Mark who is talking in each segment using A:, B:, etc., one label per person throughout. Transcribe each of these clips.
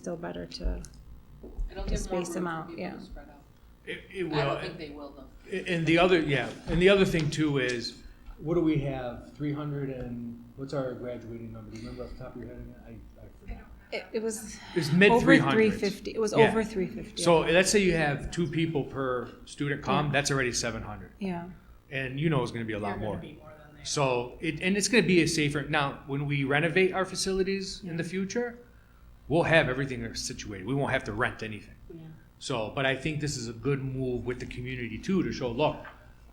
A: still better to,
B: It'll
A: To
B: give more
A: space them
B: room
A: out,
B: for people
A: yeah.
B: to spread out.
C: It, it
B: I
C: will,
B: don't think they will though.
C: and the other, yeah, and the other thing too is,
D: What do we have? Three hundred and, what's our graduating number? Do you remember off the top of your head again? I, I forgot.
A: it, it was
C: it's mid
A: over
C: three
A: three
C: hundreds.
A: fifty, it was
C: Yeah.
A: over three fifty.
C: So let's say you have two people per student comm, that's already seven hundred,
A: Yeah,
C: and you know it's gonna be a lot
E: You're
C: more.
E: gonna be more than that.
C: So it, and it's gonna be a safer, now, when we renovate our facilities in the future, we'll have everything situated, we won't have to rent anything. So, but I think this is a good move with the community too, to show, look,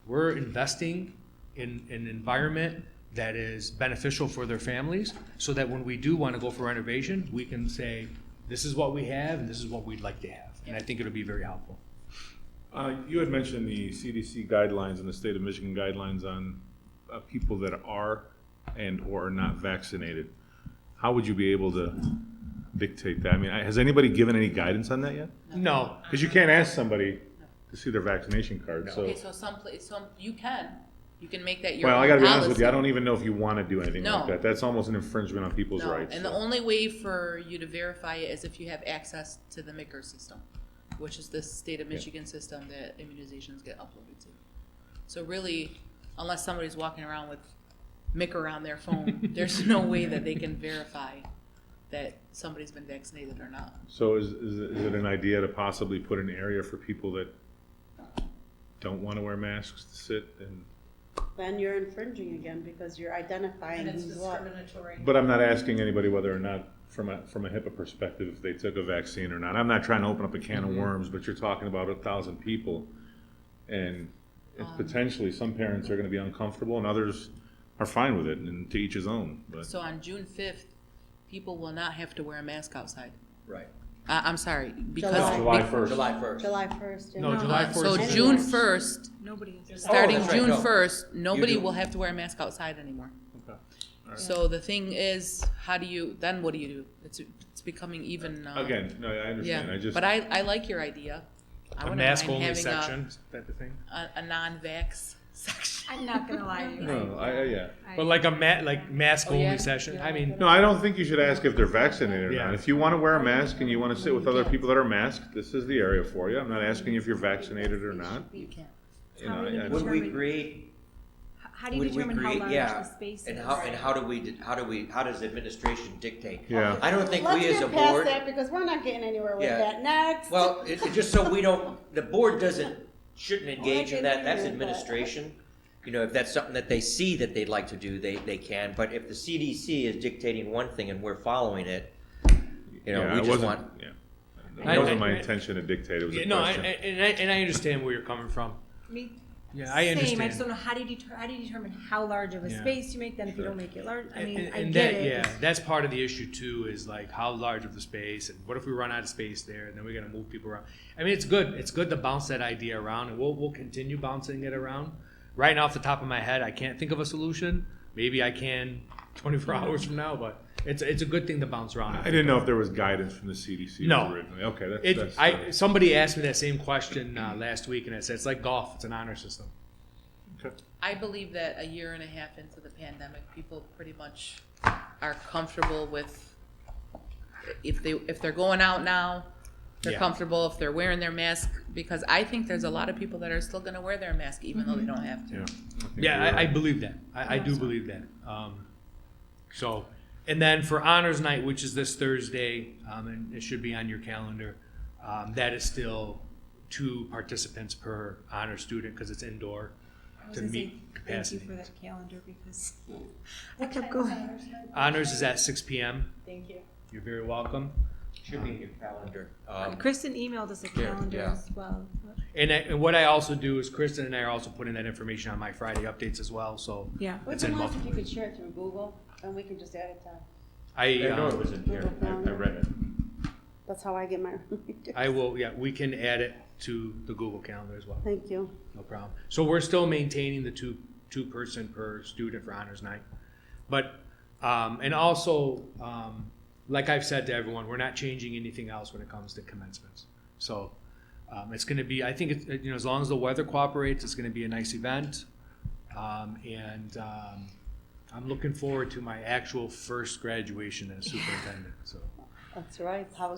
C: we're investing in, an environment that is beneficial for their families, so that when we do wanna go for renovation, we can say, this is what we have, and this is what we'd like to have, and I think it'll be very helpful.
F: Uh, You had mentioned the CDC guidelines and the state of Michigan guidelines on uh, people that are and/or are not vaccinated. How would you be able to dictate that? I mean, I- has anybody given any guidance on that yet?
C: No,
F: Because you can't ask somebody to see their vaccination card, so.
B: Okay, so some place, some, you can, you can make that your own
F: Well, I
B: policy.
F: gotta be honest with you, I don't even know if you want to do anything
B: No.
F: like that. That's almost an infringement on people's
B: No,
F: rights.
B: And the
F: so.
B: only way for you to verify it is if you have access to the MICR system, which is the state of Michigan system that immunizations get uploaded to. So really, unless somebody's walking around with MICR on their phone, there's no way that they can verify that somebody's been vaccinated or not.
F: So is, is it- is it an idea to possibly put an area for people that don't want to wear masks to sit and?
G: Then you're infringing again because you're identifying
E: And it's
G: who's what.
E: discriminatory.
F: But I'm not asking anybody whether or not, from a, from a HIPAA perspective, if they took a vaccine or not. I'm not trying to open up a can of worms, but you're talking about a thousand people. And it's
B: Um.
F: potentially, some parents are gonna be uncomfortable and others are fine with it and to each his own, but.
B: So on June fifth, people will not have to wear a mask outside.
H: Right.
B: I, I'm sorry,
G: No,
B: because.
F: July first.
H: July first.
G: July first.
C: no, July
B: Uh, So
C: fourth. is-
B: June first,
A: nobody is.
B: starting
H: Oh, that's right,
B: June
H: no.
B: first, nobody
H: do.
B: will have to wear a mask outside anymore. So the thing is, how do you, then what do you do? It's, it's becoming even, uh.
F: Again, no, I understand, I
B: Yeah,
F: just.
B: but I, I like your idea. I
C: A
B: wouldn't
C: mask
B: mind
C: only
B: having a-
C: section, type of thing.
B: A, a non-vax section.
A: I'm not gonna lie to you.
F: No, I, I- yeah.
C: But like a ma, like mask
B: Oh, yeah?
C: only session, I mean,
F: No, I don't think you should ask if they're vaccinated or
C: Yeah.
F: not. If you want to wear a mask and you want to sit with other people that are masked, this is the area for you. I'm not asking if you're vaccinated or not.
B: You can't.
F: You know,
A: How many
F: I- I-
H: Would we
A: Determine-
H: create?
A: How do you
H: would we
A: determine how
H: create-
A: large
H: yeah,
A: the space is?
H: And how, and how do we, di- how do we, how does administration dictate?
F: Yeah.
H: I don't think
G: Let's
H: we as a
G: get past
H: board,
G: that because we're not getting anywhere with
H: Yeah.
G: that. Next.
H: well, it, it- just so we don't, the board doesn't, shouldn't engage in that, that's administration. You know, if that's something that they see that they'd like to do, they, they can, but if the CDC is dictating one thing and we're following it, you
F: Yeah,
H: know,
F: I
H: we just
F: wasn't-
H: want,
F: Yeah.
C: I-
F: It wasn't
C: I-
F: my intention to dictate, it was
C: yeah,
F: a
C: no, I- I-
F: question.
C: and I, and I understand where you're coming from.
A: Me-
C: Yeah, I
A: Same, I
C: understand.
A: just don't know, how do you deter, how do you determine how large of a
C: Yeah.
A: space you make then if you don't make it large? I mean,
C: and,
A: I
C: and
A: get
C: that,
A: it.
C: yeah, that's part of the issue too. Is like how large of the space, and what if we run out of space there, and then we're gonna move people around. I mean, it's good. It's good to bounce that idea around, and we'll we'll continue bouncing it around. Right now, off the top of my head, I can't think of a solution. Maybe I can 24 hours from now, but it's it's a good thing to bounce around.
F: I didn't know if there was guidance from the CDC
C: No.
F: originally. Okay, that's,
C: It,
F: that's.
C: I somebody asked me that same question uh, last week, and I said it's like golf. It's an honor system.
F: okay.
B: I believe that a year and a half into the pandemic, people pretty much are comfortable with, if they, if they're going out now, they're
C: Yeah.
B: comfortable, if they're wearing their mask, because I think there's a lot of people that are still gonna wear their mask even though they don't have to.
F: Yeah. think
C: Yeah,
F: you're
C: I, I
F: right.
C: believe that. I, I do believe that. Um, so, and then for honors night, which is this Thursday, um, and it should be on your calendar, um, that is still two participants per honor student because it's indoor
A: I was
C: to
A: gonna say,
C: meet
A: Thank you for
C: capacity.
A: that calendar because I kept going.
C: Honors is at six p.m.
E: Thank you.
C: You're very welcome.
H: should be in your calendar. Um,
A: Kristen emailed us a
H: Yeah,
A: calendar
H: yeah.
A: as well.
C: And, I, and what I also do is Kristen and I are also putting that information on my Friday updates as well. So
A: Yeah.
C: it's
G: What's
C: in
G: the last if
C: multiple-
G: you could share it through Google and we can just add it to,
C: I
F: I know
C: um,
F: it was in here. I I read it.
G: that's how I get my.
C: I will. Yeah, we can add it to the Google Calendar as well.
G: Thank you.
C: No problem. So we're still maintaining the two, two person per student for honors night. But, um, and also, um, like I've said to everyone, we're not changing anything else when it comes to commencements. So, um, it's gonna be, I think it's, you know, as long as the weather cooperates, it's gonna be a nice event. Um, and, um, I'm looking forward to my actual first graduation as superintendent, so.
G: That's right. How